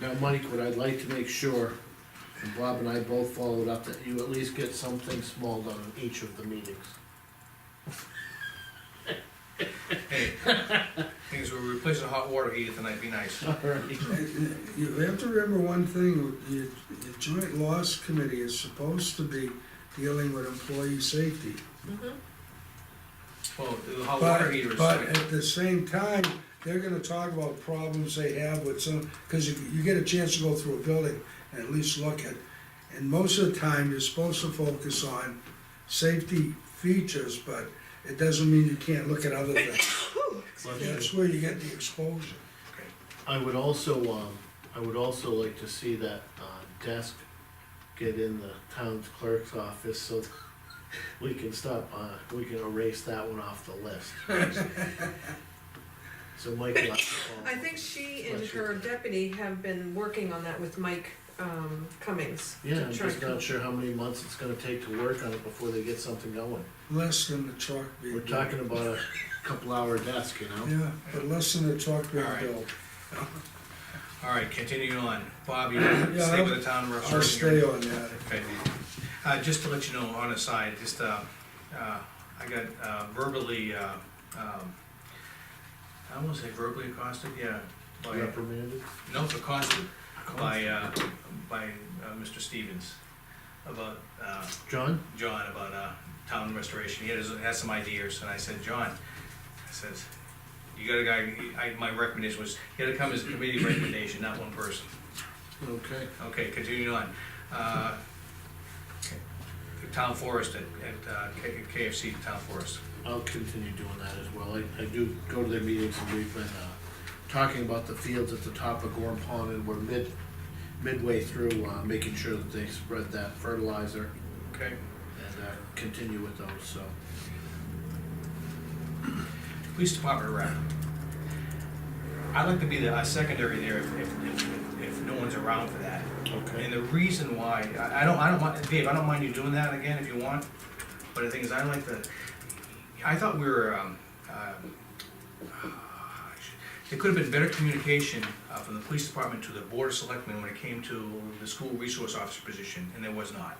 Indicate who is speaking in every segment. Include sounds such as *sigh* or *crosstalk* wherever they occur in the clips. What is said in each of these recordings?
Speaker 1: Now, Mike, what I'd like to make sure, and Bob and I both followed up, that you at least get something small done in each of the meetings.
Speaker 2: Hey, things we're replacing a hot water heater tonight, be nice.
Speaker 1: Alright.
Speaker 3: You have to remember one thing, your, your joint loss committee is supposed to be dealing with employee safety.
Speaker 2: Well, the hot water
Speaker 3: But,
Speaker 2: heater is.
Speaker 3: but at the same time, they're gonna talk about problems they have with some, cause you, you get a chance to go through a building and at least look at. And most of the time, you're supposed to focus on safety features, but it doesn't mean you can't look at
Speaker 2: *laughs*
Speaker 3: other things. That's where you get the exposure.
Speaker 1: I would also, um, I would also like to see that, uh, desk get in the town's clerk's office so *laughs* that we can stop, uh, we can erase that one off the list. So Mike, you'll have to follow
Speaker 4: I think she and
Speaker 1: Bless you.
Speaker 4: her deputy have been working on that with Mike um, Cummings. to
Speaker 1: Yeah, I'm
Speaker 4: try
Speaker 1: just
Speaker 4: to-
Speaker 1: not sure how many months it's gonna take to work on it before they get something going.
Speaker 3: Less than the truck being.
Speaker 1: We're talking about a couple hour desk, you know?
Speaker 3: Yeah, but less than the truck being
Speaker 2: All right.
Speaker 3: built.
Speaker 2: All right, continuing on. Bob, you
Speaker 3: Yeah,
Speaker 2: stay
Speaker 3: I'll-
Speaker 2: with the town restoration.
Speaker 3: I'll stay on that.
Speaker 2: Okay. Uh, just to let you know, on a side, just, uh, uh, I got uh, verbally, uh, um, I almost say verbally accosted, yeah. by-
Speaker 1: Reprimanded.
Speaker 2: No, accosted by, uh, by, uh, Mr. Stevens about, uh,
Speaker 1: John?
Speaker 2: John about uh, town restoration, he had, his- had some ideas, and I said, John, I says, you got a guy, I, my recommendation was, you gotta come as a committee recommendation, not one person.
Speaker 1: Okay.
Speaker 2: Okay, continuing on. Uh, The town forest at, at uh, K- KFC, town forest.
Speaker 1: I'll continue doing that as well. I, I do go to their meetings and we've been, uh, talking about the fields at the top of Gorm Pond and we're mid, midway through, uh, making sure that they spread that fertilizer
Speaker 2: Okay.
Speaker 1: and, uh, continue with those, so.
Speaker 2: Police department rep. I'd like to be the uh, secondary there if, if, if- if no one's around for that. And
Speaker 1: Okay.
Speaker 2: the reason why, I, I don't, I don't mind, Dave, I don't mind you doing that again if you want, but the thing is, I like the, I thought we were, um, um, there could have been better communication, uh, from the police department to the board of selectmen when it came to the school resource officer position, and there was not.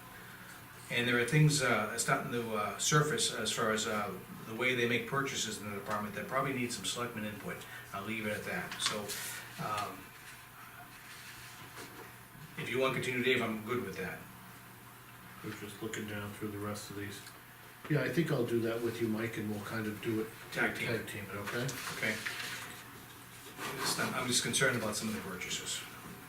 Speaker 2: And there are things, uh, starting to, uh, surface as far as, uh, the way they make purchases in the department that probably need some selectmen input, I'll leave it at that, so, um, if you want to continue, Dave, I'm good with that.
Speaker 1: We're just looking down through the rest of these. Yeah, I think I'll do that with you, Mike, and we'll kind of do it.
Speaker 2: Tag team.
Speaker 1: Tag team it, okay?
Speaker 2: Okay. It's not- I'm just concerned about some of the purchases,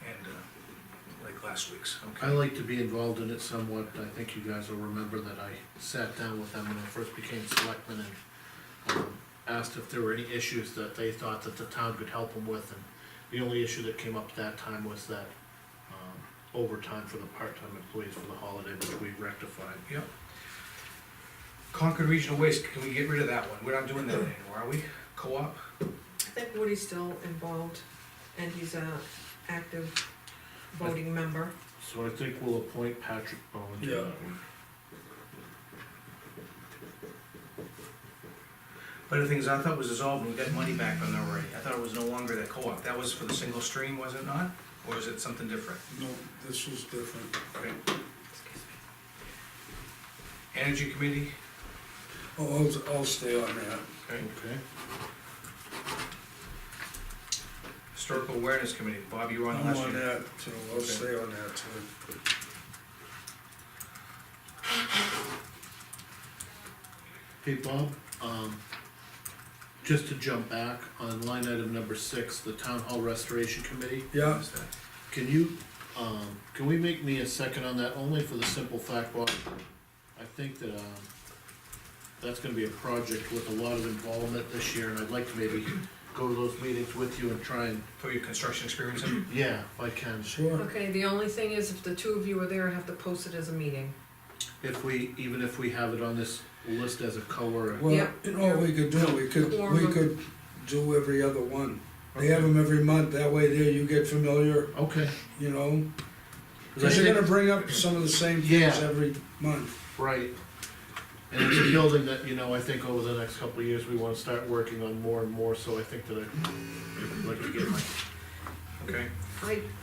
Speaker 2: and, uh, like last week's,
Speaker 1: I
Speaker 2: okay?
Speaker 1: like to be involved in it somewhat, I think you guys will remember that I sat down with them when I first became selectman and um, asked if there were any issues that they thought that the town could help them with, and the only issue that came up that time was that um, overtime for the part-time employees for the holiday, which we rectified.
Speaker 2: Yep. Concord Regional Waste, can we get rid of that one? We're not doing that anymore, are we? Co-op?
Speaker 4: I think Woody's still involved, and he's a active voting member.
Speaker 1: So I think we'll appoint Patrick Bowen to
Speaker 3: Yeah.
Speaker 1: that one.
Speaker 2: But the thing is, I thought it was dissolved, and we got money back on that already. I thought it was no longer that co-op. That was for the single stream, was it not? Or is it something different?
Speaker 3: No, this was different.
Speaker 2: Okay. Energy Committee,
Speaker 3: Oh, I'll, I'll stay on that.
Speaker 2: okay.
Speaker 1: Okay,
Speaker 2: Historical Awareness Committee, Bob, you were on the
Speaker 3: I'm
Speaker 2: last
Speaker 3: on
Speaker 2: year.
Speaker 3: that too, I'll
Speaker 2: Okay.
Speaker 3: stay on that too.
Speaker 1: hey Bob, um, just to jump back on line item number six, the town hall restoration committee.
Speaker 3: Yeah,
Speaker 1: Can you, um, can we make me a second on that, only for the simple fact, Bob? I think that, um, that's gonna be a project with a lot of involvement this year, and I'd like to maybe go to those meetings with you and try and,
Speaker 2: For your construction experience, in-
Speaker 1: yeah, if I can.
Speaker 3: sure.
Speaker 4: Okay, the only thing is, if the two of you are there, I have to post it as a meeting.
Speaker 1: If we, even if we have it on this list as a co or, a-
Speaker 3: Well,
Speaker 4: Yeah.
Speaker 3: you know, what we could do, we could, we
Speaker 4: Quorum.
Speaker 3: could do every other one. They have them every month, that way there you get familiar,
Speaker 1: okay.
Speaker 3: you know?
Speaker 1: 'Cause I
Speaker 3: Cause you're
Speaker 1: think-
Speaker 3: gonna bring up some of the same
Speaker 1: Yeah.
Speaker 3: things every month.
Speaker 1: Right. And it's a building that, you know, I think over the next couple of years, we wanna start working on more and more, so I think that I'd like to get my
Speaker 2: okay?
Speaker 4: I